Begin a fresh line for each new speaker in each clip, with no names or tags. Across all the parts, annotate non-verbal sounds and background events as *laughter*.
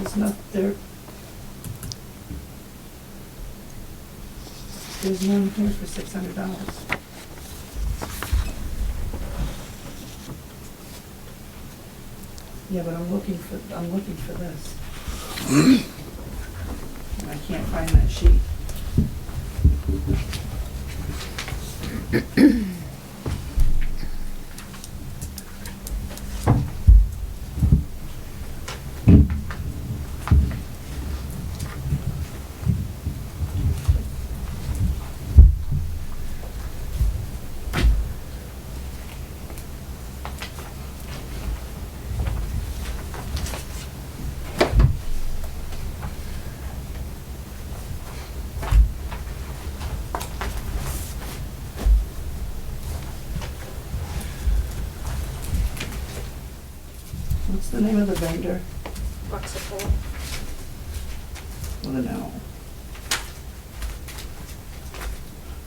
It's not there. There's none here for six hundred dollars. Yeah, but I'm looking for, I'm looking for this. And I can't find that sheet. What's the name of the vendor?
Foxapole.
With an L.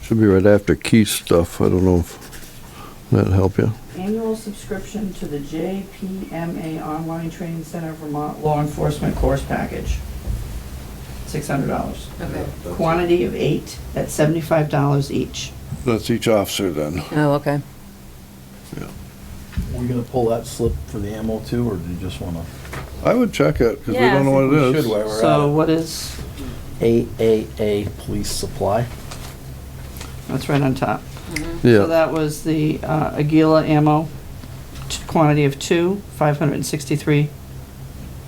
Should be right after Keith's stuff. I don't know if that'd help you.
Annual subscription to the JPMA Online Training Center Vermont Law Enforcement Course Package. Six hundred dollars.
Okay.
Quantity of eight at seventy-five dollars each.
That's each officer then.
Oh, okay.
We're gonna pull that slip for the ammo too, or do you just wanna?
I would check it because we
Yeah, I
don't know
We
what it
should
is.
while we're
So
at it.
what is,
AAA Police Supply.
that's right on top.
Mm-hmm.
So
Yeah,
that was the uh, Aguila ammo, t- quantity of two, five hundred and sixty-three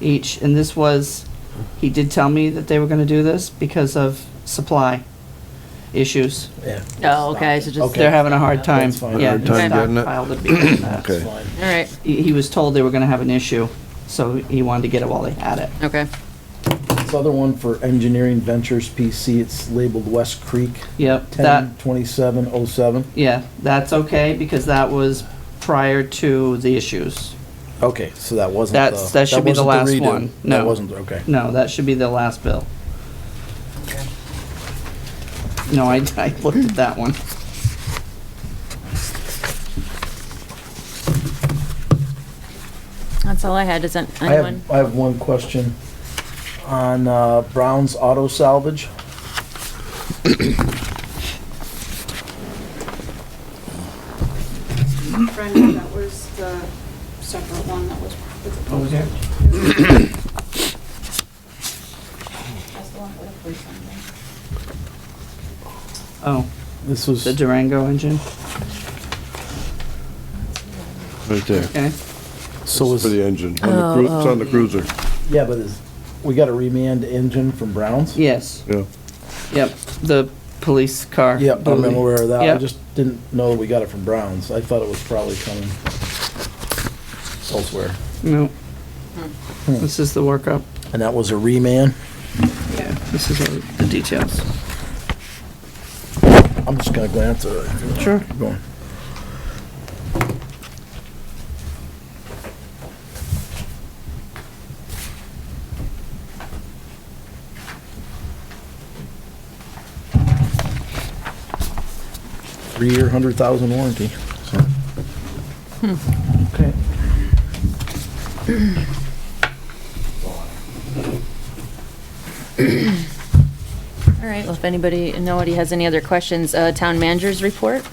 each. And this was, he did tell me that they were gonna do this because of supply issues.
Yeah.
Oh, okay, so just-
They're having a hard time.
That's fine.
Yeah,
Hard time getting it?
stockpiled because of that.
Okay.
Fine.
All right,
He he was told they were gonna have an issue, so he wanted to get it while they had it.
okay.
This other one for Engineering Ventures PC, it's labeled West Creek,
Yep, that,
ten twenty-seven oh seven.
yeah, that's okay, because that was prior to the issues.
Okay, so that wasn't the.
That's- that should be the last
wasn't redo.
one.
That
No.
wasn't, okay.
No, that should be the last bill. No, I, I looked at that one.
That's all I had. Does an-
I
anyone?
have, I have one question on uh, Brown's Auto Salvage.
Brendan, that was the separate one that was with the.
was that?
That's the one with the police on there.
Oh,
This was,
the Durango engine,
right there.
okay.
so
For
was,
the engine, on the cru- it's on the cruiser,
yeah, but is, we got a remand engine from Brown's?
Yes,
yeah.
yep, the police car.
Yep, I'm
Bully.
aware of that. I
Yep.
just didn't know that we got it from Browns. I thought it was probably coming elsewhere.
No.
Hmm.
This is the workup.
And that was a reman?
Yeah, this is all the details.
I'm just gonna glance at it.
Sure.
Keep going. Three-year, hundred thousand warranty. so.
Okay.
All right, well, if anybody, nobody has any other questions, uh, town manager's report?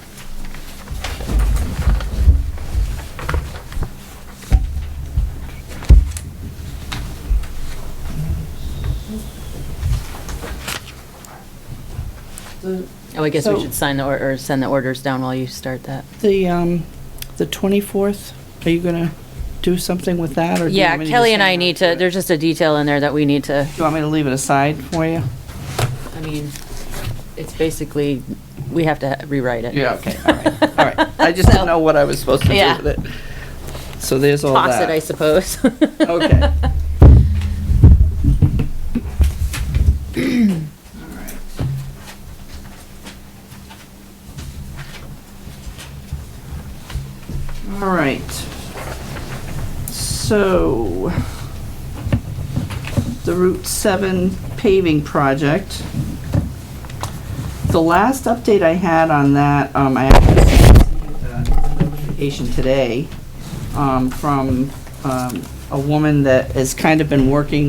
The,
Oh, I guess
So-
we should sign the, or, or send the orders down while you start that.
the, um, the twenty-fourth, are you gonna do something with that, or? do you
Yeah,
want me to
Kelly
just
and
hang
I
on
need to,
it?
there's just a detail in there that we need to,
Do you want me to leave it aside for you?
I mean, it's basically, we have to rewrite it.
Okay, all *laughs* right, all right. I just didn't know what I was supposed to do
Yeah.
with it. So there's all
Toss it, I
that.
suppose.
*laughs* Okay. All right. So, the Route 7 paving project. The last update I had on that, um, I actually received a uh, notification today um, from um, a woman that has kind of been working